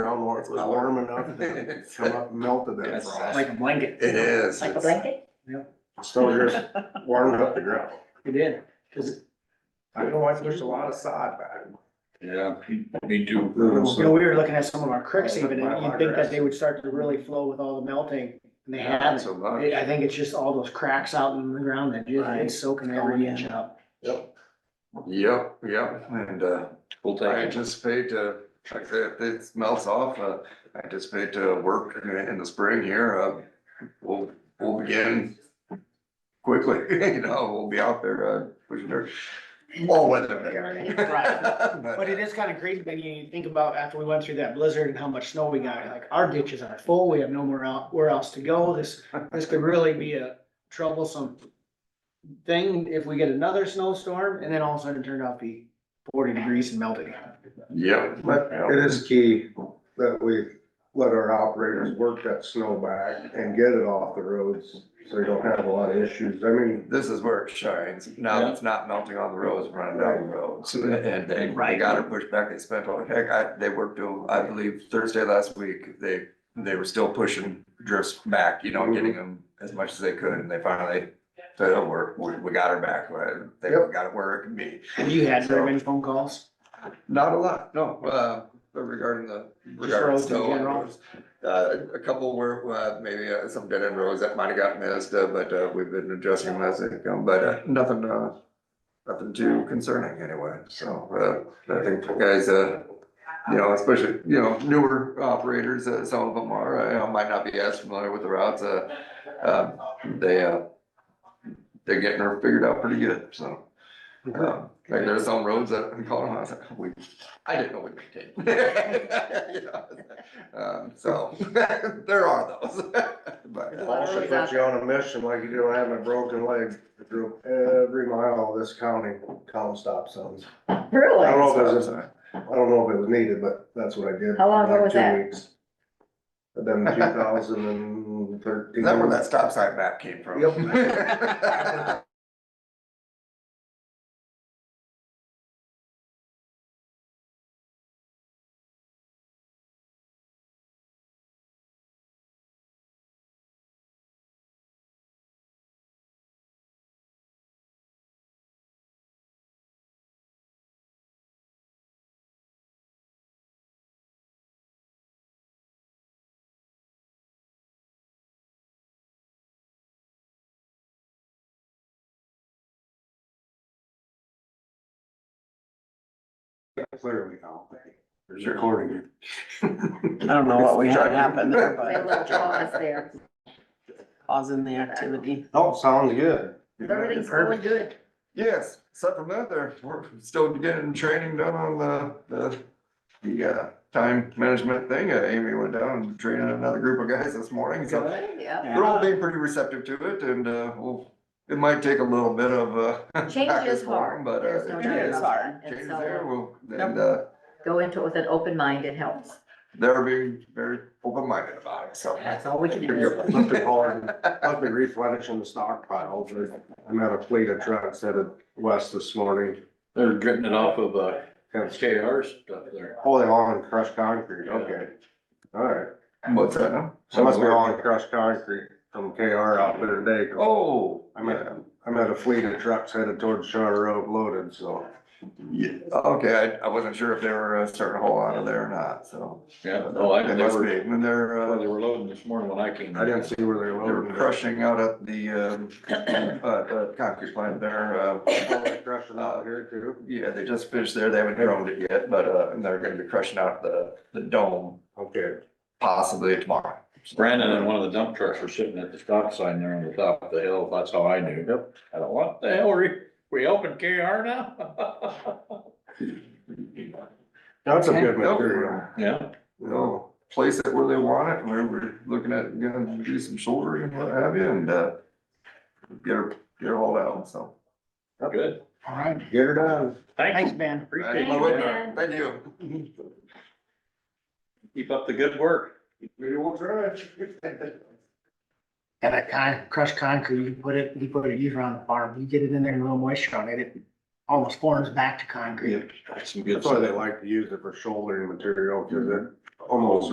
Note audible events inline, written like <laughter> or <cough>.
how long, it was How warm enough to come up and melted that Yes. frost. like a blanket. It is. Like a It's- blanket? So you're just warming up the ground. It did, cause I know I pushed a lot of sod back. Yeah, me too. You know, we were looking at some of our creeks even, and My you'd think grass. that they would start to really flow with all the melting, and they haven't. So much. I I think it's just all those cracks out in the ground that just, Right. it's soaking every inch up. Yep. Yep, yep, and, uh, I anticipate to, like, if it melts off, uh, I anticipate to work in the spring here, uh, we'll, we'll begin quickly, <laughs> you know, we'll be out there, uh, pushing dirt, all weather. <laughs> Right. But it is kinda crazy, when you think about after we went through that blizzard and how much snow we got, like, our ditches are full, we have nowhere out, where else to go, this, this could really be a troublesome thing if we get another snowstorm, and then all of a sudden it turned out to be forty degrees and melting. uh, Yep. But it is key that we let our operators work that snow back and get it off the roads, so you don't have a lot of issues. I mean, This is where it shines. Now it's not melting on the roads, running down the roads. And they, they Right. got it pushed back. They spent all, heck, I, they worked till, I believe Thursday last week. They, they were still pushing drifts back, you know, getting them as much as they could. And they finally said, oh, we're, we, we got her back. We're- They Yep. got it where it can be. Have you had very many phone calls? Not a lot, no, uh, but regarding the, regarding roads in snow. and general? roads. Uh, a couple were, uh, maybe uh, some dead end roads that might have got missed, uh, but, uh, we've been adjusting them as they come, but, uh, nothing, uh, nothing too concerning anyway, so, uh, I think the guys, uh, you know, especially, you know, newer operators, uh, some of them are, uh, you know, might not be as familiar with the routes, uh, um, they, uh, they're getting her figured out pretty good, so. Um, Like there's some roads that I'm calling, I was like, we, I didn't know we could <laughs> take. You know, um, So, <laughs> there are those, <laughs> but. uh, I should put you on a mission like you do. I have my broken leg. I drove every mile of this county, column stop signs. I don't Oh, Really? know if it was, I don't know if it was needed, but that's what I did. How long ago for like was two that? weeks. But then two thousand and thirteen. Is that where that stop sign map came from? <laughs> Yep. Clearly now. There's recording. it. I don't know what we had happen there, <laughs> They but love pause there. pausing the activity. Oh, sounds good. Everything's going good. Yes, except for that, there, we're still getting training done on the, the, the, uh, time management thing. Uh, Amy went down and trained another group of guys this morning, so. Yeah. They're all being pretty receptive to it and, uh, we'll, it might take a little bit of, uh. <laughs> back Change and is forth, hard. But, There's uh, no it doubt is. is about that. Change And is there, so well, and, uh, go into it with an open mind, it helps. they're being very open-minded about it, so. That's all we can do. Must be hauling, must be replenishing the stockpile. I'm at a fleet of trucks headed west this morning. They're getting it off of, uh, Kind of- KR stuff there. Oh, they hauling crushed concrete, okay. All right. What's that now? So must be hauling crushed concrete from KR out there today. 'cause Oh, I'm at, I'm at a fleet of trucks headed towards Shaw Road loaded, so. yeah, okay, I, I wasn't sure if they were uh, starting a whole lot of there or not, so. Yeah, no, I It must never, be, and they're, when uh, they were loading this morning when I came. I didn't see where they were they were loading. crushing out at the, um, <coughs> uh, uh, concrete plant there, uh, Oh, they're Crushing out here too. yeah, they just finished there, they haven't droned it yet, but, uh, and they're gonna be crushing out the, the dome Okay. possibly tomorrow. Brandon and one of the dump trucks were sitting at the stop sign there on the top of the hill, that's how I knew. Yep. I don't, what the hell, we, we helping KR now? <laughs> That's a good Nope. material. Yeah, they'll place it where they want it, where we're looking at, gonna do some shouldering and what have you, and, uh, get her, get her hauled out, so. good. All right, Get her done. thanks, Ben. Appreciate Hey, it. Whitmer, Thank you. Keep up the good work. Maybe we'll try And that kind, crushed concrete, you can put it, you put it, you run the farm, you get it in there, a little moisture on it, it almost forms back to concrete. Some good That's why they like to use it for shouldering material, cause it almost